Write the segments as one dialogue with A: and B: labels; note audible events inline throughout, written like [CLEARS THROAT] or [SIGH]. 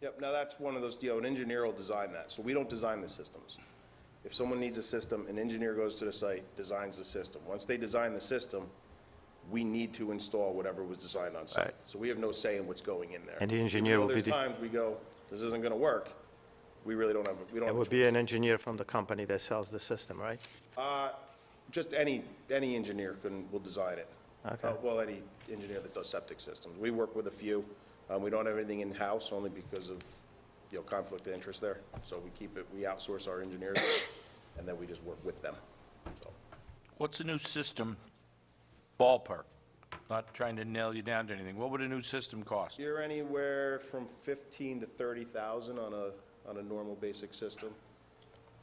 A: Yep, now that's one of those, you know, an engineer will design that, so we don't design the systems. If someone needs a system, an engineer goes to the site, designs the system. Once they design the system, we need to install whatever was designed on site.
B: Right.
A: So we have no say in what's going in there.
B: And the engineer will be
A: Even
B: the-
A: though there's times we go, this isn't gonna work, we really don't have, we don't
B: It
A: have a
B: would be an engineer from the company that sells the system, right?
A: Just any, any engineer can, will design it.
B: Okay.
A: Uh, Well, any engineer that does septic systems. We work with a few. Um, We don't have anything in-house only because of, you know, conflict of interest there. So we keep it, we outsource our engineers, [COUGHS] and then we just work with them. So
C: What's the new system ballpark? Not trying to nail you down to anything. What would a new system cost?
A: You're anywhere from 15 to 30,000 on a, on a normal basic system.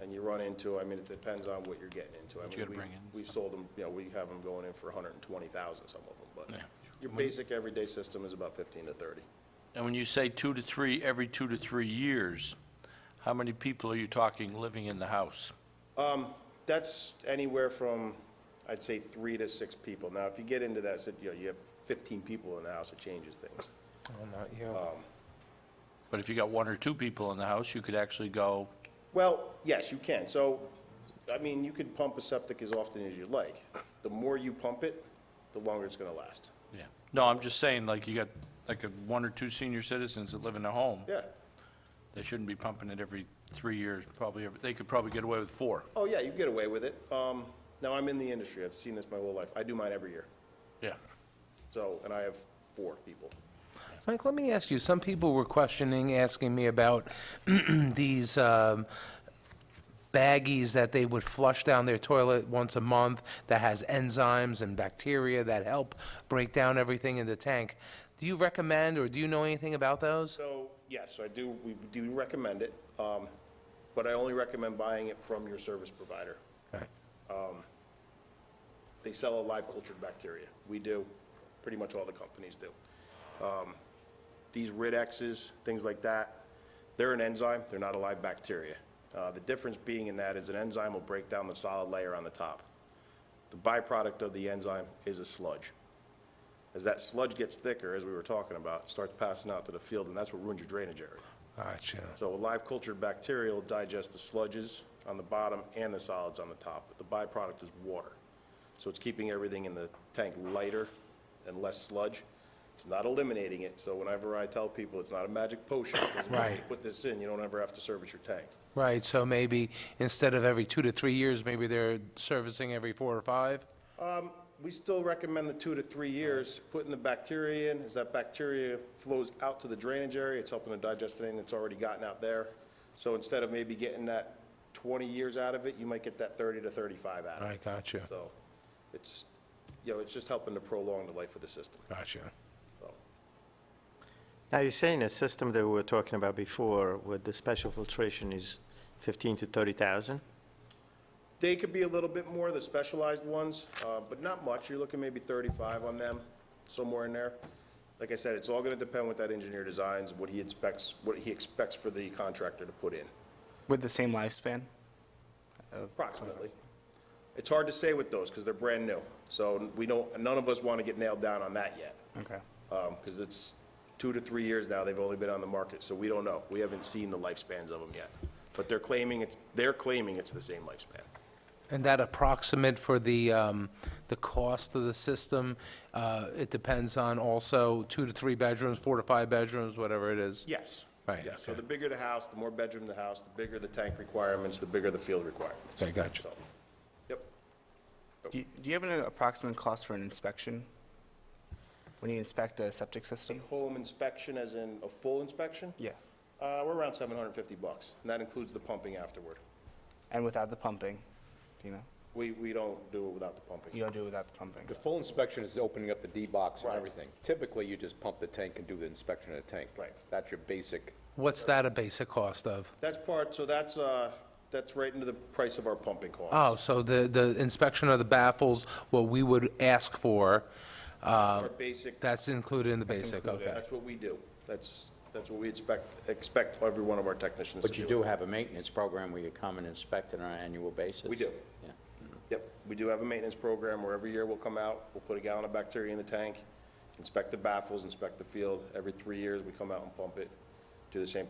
A: And you run into, I mean, it depends on what you're getting into. I mean,
C: you gotta
A: we-
C: bring in.
A: We've sold them, you know, we have them going in for 120,000, some of them, but
C: Yeah.
A: your basic everyday system is about 15 to 30.
C: And when you say two to three, every two to three years, how many people are you talking living in the house?
A: That's anywhere from, I'd say, three to six people. Now, if you get into that, so, you know, you have 15 people in the house, it changes things.
C: But if you got one or two people in the house, you could actually go,
A: Well, yes, you can. So, I mean, you could pump a septic as often as you like. The more you pump it, the longer it's going to last.
C: yeah. No, I'm just saying, like, you got, like, a one or two senior citizens that live in a home.
A: Yeah.
C: They shouldn't be pumping it every three years, probably, every- they could probably get away with four.
A: Oh, yeah, you get away with it. Um, Now, I'm in the industry. I've seen this my whole life. I do mine every year.
C: Yeah.
A: So, and I have four people.
D: Mike, let me ask you, some people were questioning, asking me about [CLEARS THROAT] these um, baggies that they would flush down their toilet once a month that has enzymes and bacteria that help break down everything in the tank. Do you recommend, or do you know anything about those?
A: So, yes, I do, we do recommend it, um, but I only recommend buying it from your service provider.
D: Okay.
A: They sell a live cultured bacteria. We do, pretty much all the companies do. Um, These Ridexes, things like that, they're an enzyme, they're not a live bacteria. Uh, The difference being in that is an enzyme will break down the solid layer on the top. The byproduct of the enzyme is a sludge. As that sludge gets thicker, as we were talking about, it starts passing out to the field, and that's what ruins your drainage area.
D: Gotcha.
A: So a live cultured bacteria will digest the sludges on the bottom and the solids on the top, but the byproduct is water. So it's keeping everything in the tank lighter and less sludge. It's not eliminating it, so whenever I tell people it's not a magic potion, because when you
D: Right.
A: put this in, you don't ever have to service your tank.
D: Right, so maybe instead of every two to three years, maybe they're servicing every four or five?
A: We still recommend the two to three years, putting the bacteria in, as that bacteria flows out to the drainage area, it's helping to digest anything that's already gotten out there. So instead of maybe getting that 20 years out of it, you might get that 30 to 35 out of it.
D: Right, gotcha,
A: So it's, you know, it's just helping to prolong the life of the system.
D: gotcha.
A: So
B: Now, you're saying the system that we were talking about before with the special filtration is 15 to 30,000?
A: They could be a little bit more, the specialized ones, uh, but not much. You're looking maybe 35 on them, somewhere in there. Like I said, it's all going to depend what that engineer designs, what he expects, what he expects for the contractor to put in,
E: With the same lifespan?
A: approximately. It's hard to say with those because they're brand new. So we don't, none of us want to get nailed down on that yet.
E: Okay.
A: Because it's two to three years now, they've only been on the market, so we don't know. We haven't seen the lifespans of them yet. But they're claiming it's, they're claiming it's the same lifespan.
D: And that approximate for the, um, the cost of the system, uh, it depends on also two to three bedrooms, four to five bedrooms, whatever it is?
A: Yes.
D: Right,
A: Yes. So
D: okay.
A: the bigger the house, the more bedroom the house, the bigger the tank requirements, the bigger the field requirements.
D: Okay, gotcha.
A: So, Yep.
E: Do you, do you have an approximate cost for an inspection? When you inspect a septic system?
A: Home inspection, as in a full inspection?
E: Yeah.
A: Uh, we're around 750 bucks, and that includes the pumping afterward.
E: And without the pumping, do you know?
A: We, we don't do it without the pumping.
E: You don't do it without the pumping.
F: The full inspection is opening up the D-box and
A: Right.
F: everything. Typically, you just pump the tank and do the inspection of the tank.
A: Right.
F: That's your basic.
D: What's that a basic cost of?
A: That's part, so that's, uh, that's right into the price of our pumping cost.
D: Oh, so the, the inspection of the baffles, what we would ask for,
G: Oh,
A: Our basic
D: that's included in the basic, okay.
A: That's what we do. That's, that's what we expect, expect every one of our technicians to
G: But
A: do.
G: you do have a maintenance program where you come and inspect it on an annual basis?
A: We do.
G: Yeah.
A: Yep, we do have a maintenance program where every year we'll come out, we'll put a gallon of bacteria in the tank, inspect the baffles, inspect the field. Every three years, we come out and pump it, do the same